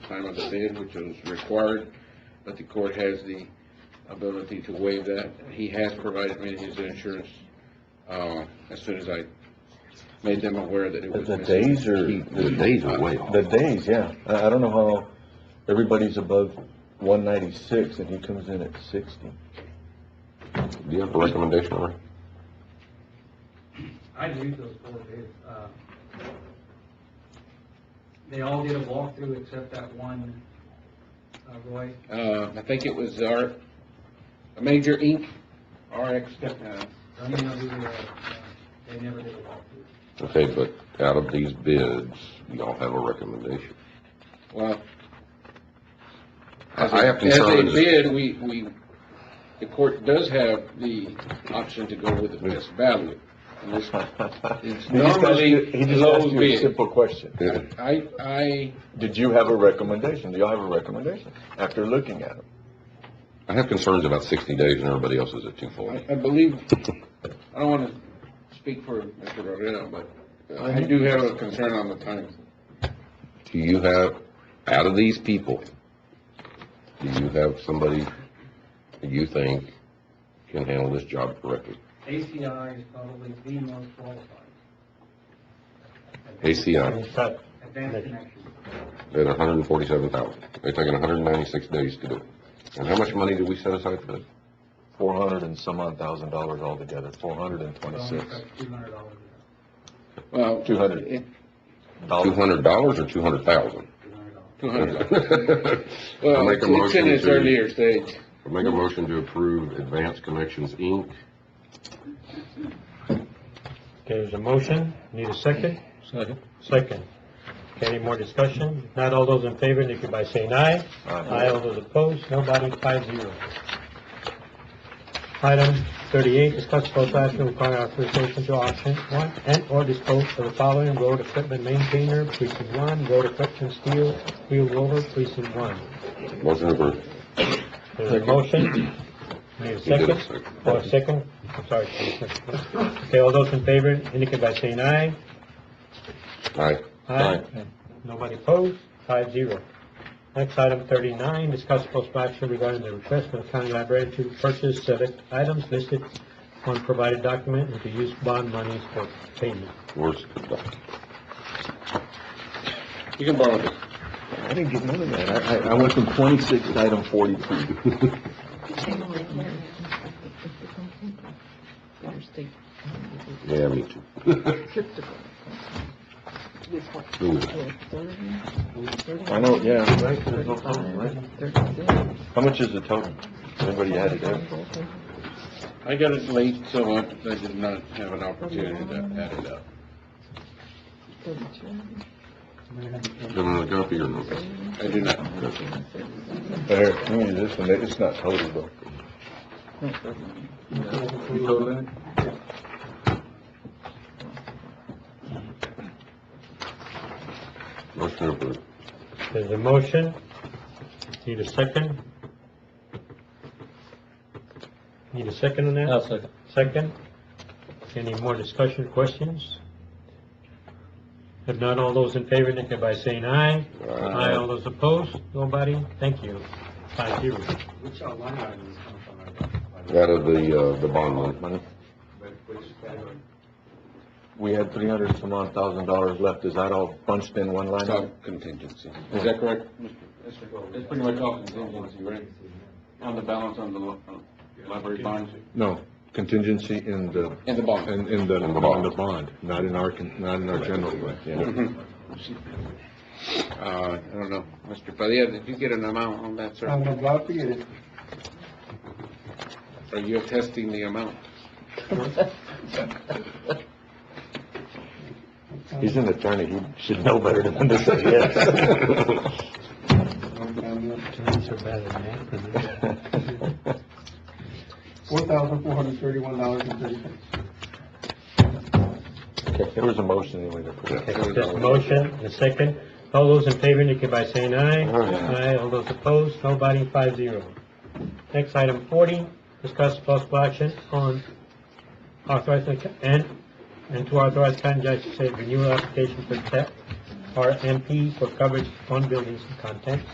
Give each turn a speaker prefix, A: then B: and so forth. A: time on the bid, which was required, but the court has the ability to waive that. He has provided me his insurance, uh, as soon as I made them aware that it was.
B: The
A: missing.
B: days are,
C: The days are way off.
B: the days, yeah. I, I don't know how everybody's above one ninety-six and he comes in at sixty.
C: Do you have a recommendation, Ray?
D: I'd leave those four bids. Uh, They all did a walkthrough except that one, uh, Roy.
A: Uh, I think it was our, Major Inc., RX, uh,
D: I mean, I'll do the, uh, They never did a walkthrough.
C: Okay, but out of these bids, y'all have a recommendation.
A: well,
C: I I have
A: As
C: concerns.
A: a bid, we, we, the court does have the option to go with the best value. And this- It's
B: He just asked you-
A: normally
B: He just asked
A: low
B: you a
A: bid.
B: simple question.
C: Yeah.
A: I, I,
B: Did you have a recommendation? Do y'all have a recommendation after looking at them?
C: I have concerns about sixty days and everybody else is at two forty.
A: I I believe, I don't wanna speak for Mr. Rodriguez, but I do have a concern on the time.
C: Do you have, out of these people, do you have somebody that you think can handle this job correctly?
D: ACI is probably the most qualified.
C: ACI,
D: Advanced Connections.
C: at hundred and forty-seven thousand. They're taking hundred and ninety-six days to do it. And how much money did we set aside for this?
B: Four hundred and some odd thousand dollars altogether, four hundred and twenty-six
D: Two hundred dollars.
A: Well. eh,
B: 200.
C: Two
B: dollars.
C: hundred dollars or two hundred thousand?
D: Two hundred dollars.
A: Two hundred.
C: Well,
A: Well, it's it's in its earlier stage.
C: Make a motion to approve Advanced Connections, Inc.
E: Okay, there's a motion, need a second? Second. Okay, any more discussion? If Not all those in favor, indicate by saying aye. Aye, all those opposed, nobody, five zero. Item thirty-eight, discuss possible action requiring authorization to auction one and/or dispose of the following road equipment maintainer, precinct one, road equipment steel, wheel roller, precinct one.
C: Motion approved.
E: There's a motion, need
C: You
E: a
C: did
E: second?
C: a second.
E: Oh, a second? I'm sorry. Commissioner. Okay, all those in favor, indicate by saying aye.
C: Aye.
E: Aye. Nobody opposed, five zero. Next, item thirty-nine, discuss possible action regarding the request from the county library to purchase select items listed on provided document and to use bond monies for payment.
C: Where's the doc?
A: You can borrow it.
B: I didn't get none of that. I, I, I went from twenty-six to item forty-two.
C: Yeah, me too. Ooh.
B: I know, yeah. Right, there's no problem, right? How much is the total? Anybody had it there?
A: I got it late, so I I did not have an opportunity to add it up.
C: Got another copy or no?
A: I do not.
B: There, let me use this one, it's not total though.
C: Motion approved.
E: There's a motion, need a second? Need a second on that? second. Second? Any more discussion, questions? If not, all those in favor, indicate by saying aye. Aye, all those opposed, nobody, thank you. Five zero.
D: Which uh, line item is coming from? our-
C: Out of the, uh, the bond money.
D: Which category?
B: We had three hundred some odd thousand dollars left, is that all bunched in one line? item?
A: It's contingency. Is that correct? It's pretty much all contingency, right? On the balance on the li- on library bonds
B: No, contingency in the,
A: and the bond.
B: in, in the,
C: In the bond.
B: in the bond, not in our, con- not in our general fund, yeah.
A: Uh, I don't know, Mr. Padilla, did you get an amount on that, sir?
F: I'm about to get it.
A: Are you attesting the amount?
B: He's an attorney, he should know better than to say yes.
E: Turns are better than that.
F: Four thousand four hundred thirty-one dollars and thirty cents.
B: Okay, There was a motion anyway to put it.
E: Okay, There's a motion, and a second, all those in favor, indicate by saying aye.
C: Aye.
E: Aye, all those opposed, nobody, five zero. Next, item forty, discuss possible action on authorizing, and, and to authorize county judge to say renewal application for E debt RMP for coverage on buildings and contents.